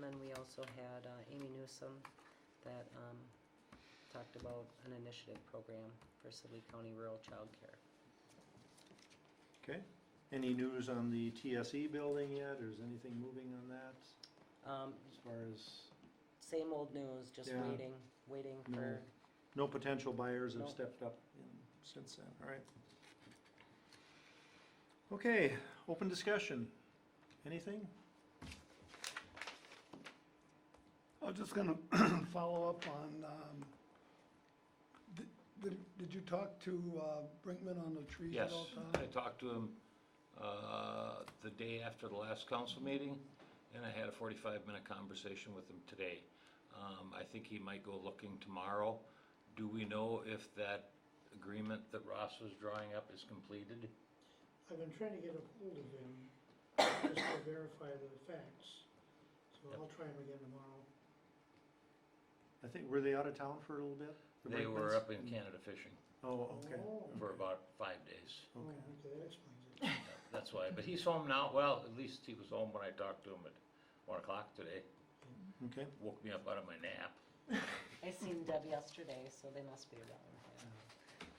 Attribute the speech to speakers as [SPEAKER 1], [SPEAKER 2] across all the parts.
[SPEAKER 1] then we also had uh, Amy Newsom that um, talked about an initiative program for Sibley County Rural Child Care.
[SPEAKER 2] Okay. Any news on the TSE building yet, or is anything moving on that
[SPEAKER 1] Um,
[SPEAKER 2] as far as
[SPEAKER 1] Same old news, just
[SPEAKER 2] Yeah.
[SPEAKER 1] waiting, waiting
[SPEAKER 2] No.
[SPEAKER 1] for,
[SPEAKER 2] no potential buyers have
[SPEAKER 1] No.
[SPEAKER 2] stepped up in- since then? All right. Okay, open discussion. Anything?
[SPEAKER 3] I was just gonna follow up on, um, did, did- did you talk to uh, Brinkman on the trees at
[SPEAKER 4] Yes,
[SPEAKER 3] all,
[SPEAKER 4] I
[SPEAKER 3] Tom?
[SPEAKER 4] talked to him, uh, the day after the last council meeting, and I had a forty-five minute conversation with him today. Um, I think he might go looking tomorrow. Do we know if that agreement that Ross was drawing up is completed?
[SPEAKER 5] I've been trying to get a hold of him, just to verify the facts, so I'll try him again tomorrow.
[SPEAKER 2] I think, were they out of town for a little bit? The
[SPEAKER 4] They were
[SPEAKER 2] Brinkmans?
[SPEAKER 4] up in Canada fishing
[SPEAKER 2] Oh, okay.
[SPEAKER 5] Oh,
[SPEAKER 4] for about five days.
[SPEAKER 5] oh,
[SPEAKER 2] Okay.
[SPEAKER 5] okay, that explains it.
[SPEAKER 4] That's why, but he's home now. Well, at least he was home when I talked to him at one o'clock today.
[SPEAKER 2] Okay.
[SPEAKER 4] Woke me up out of my nap.
[SPEAKER 1] I seen Deb yesterday, so they must be around. yeah.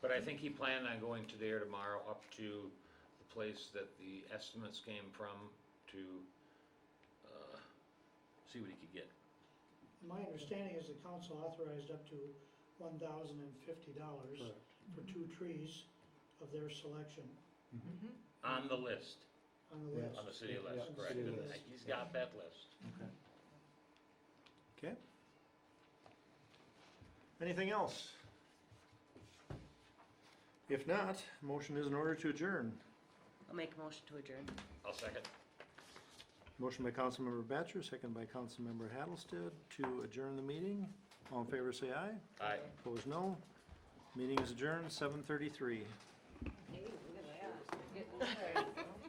[SPEAKER 4] But I think he planned on going today or tomorrow up to the place that the estimates came from to, uh, see what he could get.
[SPEAKER 5] My understanding is the council authorized up to one thousand and fifty dollars
[SPEAKER 2] Correct.
[SPEAKER 5] for two trees of their selection
[SPEAKER 2] Mm-hmm,
[SPEAKER 4] On the list,
[SPEAKER 5] on the
[SPEAKER 2] Yeah.
[SPEAKER 5] list.
[SPEAKER 4] on the city
[SPEAKER 2] Yeah,
[SPEAKER 4] list,
[SPEAKER 5] yeah,
[SPEAKER 4] correct?
[SPEAKER 5] city
[SPEAKER 4] And
[SPEAKER 5] list.
[SPEAKER 4] He's got that list.
[SPEAKER 2] Okay. Okay. Anything else? If not, motion is in order to adjourn.
[SPEAKER 1] I'll make a motion to adjourn.
[SPEAKER 4] I'll second.
[SPEAKER 2] Motion by Councilmember Batchor, second by Councilmember Hattlestead to adjourn the meeting. All in favor, say aye.
[SPEAKER 4] Aye.
[SPEAKER 2] Opposed, no. Meeting is adjourned, seven thirty-three.
[SPEAKER 1] Hey, look at that. Getting there.